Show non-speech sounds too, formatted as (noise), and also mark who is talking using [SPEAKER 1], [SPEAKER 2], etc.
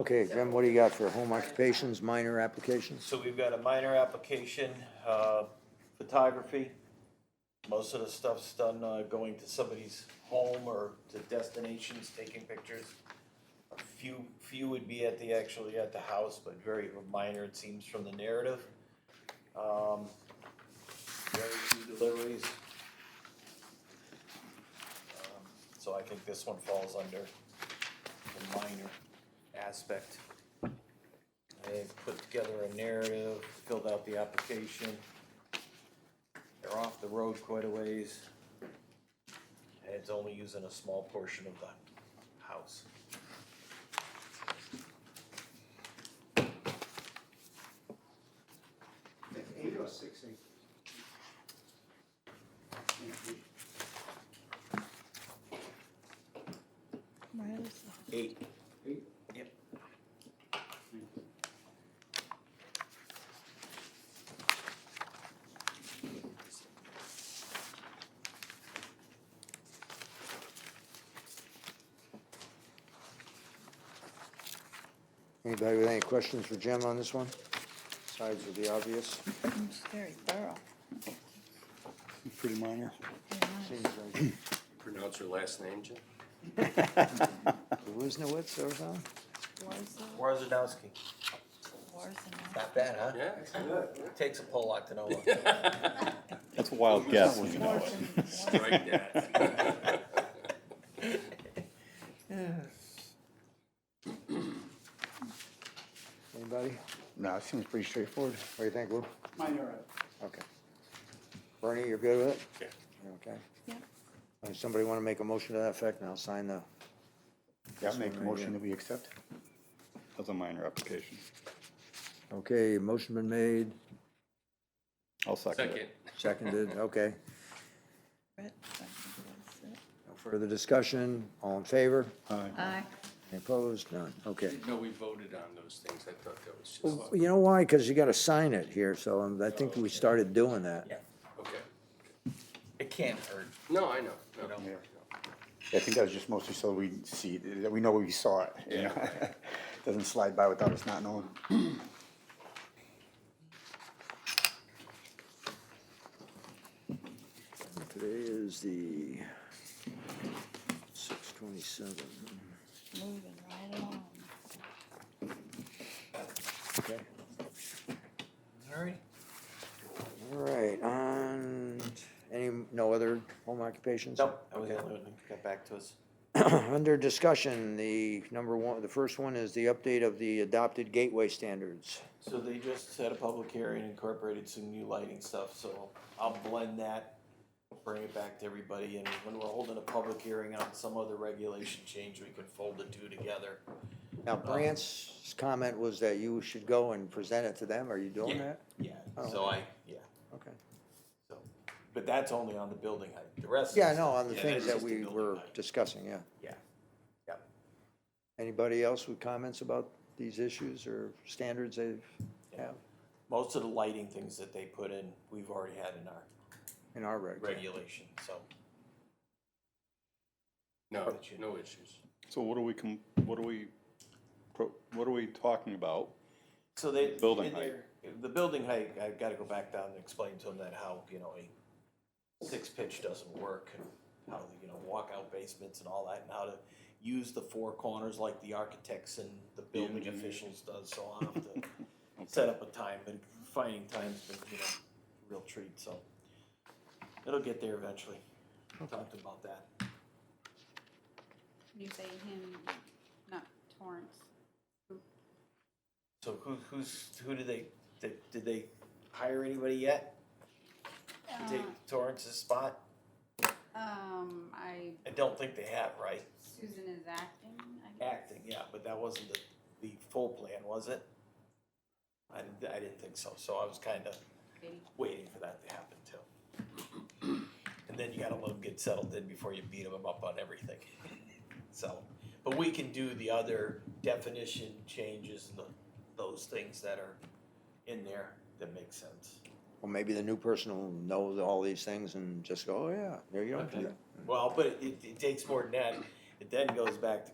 [SPEAKER 1] Okay, Jim, what do you got for home occupations, minor applications?
[SPEAKER 2] So we've got a minor application, uh, photography. Most of the stuff's done, uh, going to somebody's home or to destinations, taking pictures. A Few, few would be at the, actually at the house, but very minor, it seems, from the narrative. Um, very few deliveries. Um, So I think this one falls under the minor aspect. They put together a narrative, filled out the application. They're off the road quite a ways. And it's only using a small portion of the house.
[SPEAKER 3] That's eight or six acres.
[SPEAKER 2] Eight.
[SPEAKER 3] Eight?
[SPEAKER 2] Yep.
[SPEAKER 1] Anybody with any questions for Jim on this one? Besides with the obvious?
[SPEAKER 4] It's very thorough.
[SPEAKER 5] Pretty minor.
[SPEAKER 1] Seems like
[SPEAKER 6] Pronounce your last name, Jim?
[SPEAKER 1] Wisniewicz or something?
[SPEAKER 4] Warsaw,
[SPEAKER 2] Warzanowski.
[SPEAKER 4] Warsaw.
[SPEAKER 2] Not bad, huh?
[SPEAKER 6] Yeah.
[SPEAKER 2] Takes a Pollock to know one.
[SPEAKER 5] That's a wild guess, you know it.
[SPEAKER 4] Warsaw.
[SPEAKER 6] Strike that.
[SPEAKER 1] Anybody?
[SPEAKER 5] No, it seems pretty straightforward.
[SPEAKER 1] What do you think, Lou?
[SPEAKER 3] Minor,
[SPEAKER 1] Okay. Bernie, you're good with it?
[SPEAKER 6] Yeah.
[SPEAKER 1] You're Okay.
[SPEAKER 4] Yeah.
[SPEAKER 1] Uh, Somebody want to make a motion to that effect, and I'll sign the,
[SPEAKER 5] Yeah, I'll make a
[SPEAKER 1] This one right
[SPEAKER 5] motion
[SPEAKER 1] here.
[SPEAKER 5] that we accept. That's a minor application.
[SPEAKER 1] okay, motion been made,
[SPEAKER 5] I'll second
[SPEAKER 6] Second.
[SPEAKER 5] it.
[SPEAKER 1] seconded, okay.
[SPEAKER 4] Brett, I think that's it.
[SPEAKER 1] No Further discussion, all in favor?
[SPEAKER 5] Aye.
[SPEAKER 4] Aye.
[SPEAKER 1] Any Opposed? None, okay.
[SPEAKER 6] No, we voted on those things. I thought that was
[SPEAKER 1] Well,
[SPEAKER 6] just,
[SPEAKER 1] You know why? Because you got to sign it here, so um, I think we started doing that.
[SPEAKER 2] Yeah,
[SPEAKER 6] okay.
[SPEAKER 2] it can't hurt,
[SPEAKER 6] No, I know. No,
[SPEAKER 2] you know?
[SPEAKER 5] Yeah. I think that was just mostly so we see, that we know we saw it, you know? (laughs) Doesn't slide by without us not knowing.
[SPEAKER 1] Today is the six twenty-seven,
[SPEAKER 4] Moving right along.
[SPEAKER 1] okay.
[SPEAKER 2] All right.
[SPEAKER 1] All right, on, any, no other home occupations?
[SPEAKER 2] Nope, that was the only one that got back to us.
[SPEAKER 1] (clears throat) Under discussion, the number one, the first one is the update of the adopted gateway standards.
[SPEAKER 2] So they just had a public hearing, incorporated some new lighting stuff, so I'll blend that, bring it back to everybody, and when we're holding a public hearing on some other regulation change, we can fold the two together.
[SPEAKER 1] Now,
[SPEAKER 2] Uh-huh.
[SPEAKER 1] Brant's comment was that you should go and present it to them, are you doing
[SPEAKER 2] Yeah.
[SPEAKER 1] that?
[SPEAKER 2] Yeah,
[SPEAKER 1] Oh.
[SPEAKER 2] so I, yeah,
[SPEAKER 1] Okay.
[SPEAKER 2] so, but that's only on the building height, the rest. is-
[SPEAKER 1] Yeah, no, on the
[SPEAKER 2] Yeah,
[SPEAKER 1] things
[SPEAKER 2] that's
[SPEAKER 1] that
[SPEAKER 2] just the
[SPEAKER 1] we
[SPEAKER 2] building
[SPEAKER 1] were
[SPEAKER 2] height.
[SPEAKER 1] discussing, yeah.
[SPEAKER 2] Yeah, yep.
[SPEAKER 1] Anybody else with comments about these issues or standards they have
[SPEAKER 2] Most of the lighting things that they put in, we've already had in our
[SPEAKER 1] in our reg?
[SPEAKER 2] regulation, so.
[SPEAKER 6] no, no issues.
[SPEAKER 7] So what are we, com- what are we, pro- what are we talking about?
[SPEAKER 2] So they.
[SPEAKER 7] Building
[SPEAKER 2] in their- The building height, I've gotta go back down and explain to them that how, you know, a six pitch doesn't work. and How, you know, walkout basements and all that, and how to use the four corners like the architects and the building
[SPEAKER 7] engineers.
[SPEAKER 2] officials does, so I'll have to set up a time, but finding time's been, you know, real treat, so. It'll get there eventually. Talked about that.
[SPEAKER 8] You say him, not Torrance.
[SPEAKER 2] So who, who's, who did they, did, did they hire anybody yet to
[SPEAKER 8] Uh,
[SPEAKER 2] take Torrance's spot?
[SPEAKER 8] Um, I,
[SPEAKER 2] I don't think they have, right?
[SPEAKER 8] Susan is acting, I guess.
[SPEAKER 2] Acting, yeah, but that wasn't the, the full plan, was it? I didn't, I didn't think so, so I was kinda
[SPEAKER 8] Katie.
[SPEAKER 2] waiting for that to happen too. And then you gotta let them get settled in before you beat them up on everything. (laughs) So, but we can do the other definition changes and the, those things that are in there that make sense.
[SPEAKER 1] Well, maybe the new person will know all these things and just go, oh, yeah, there you go.
[SPEAKER 2] Okay. Well, but it, it takes more than that. It then goes back to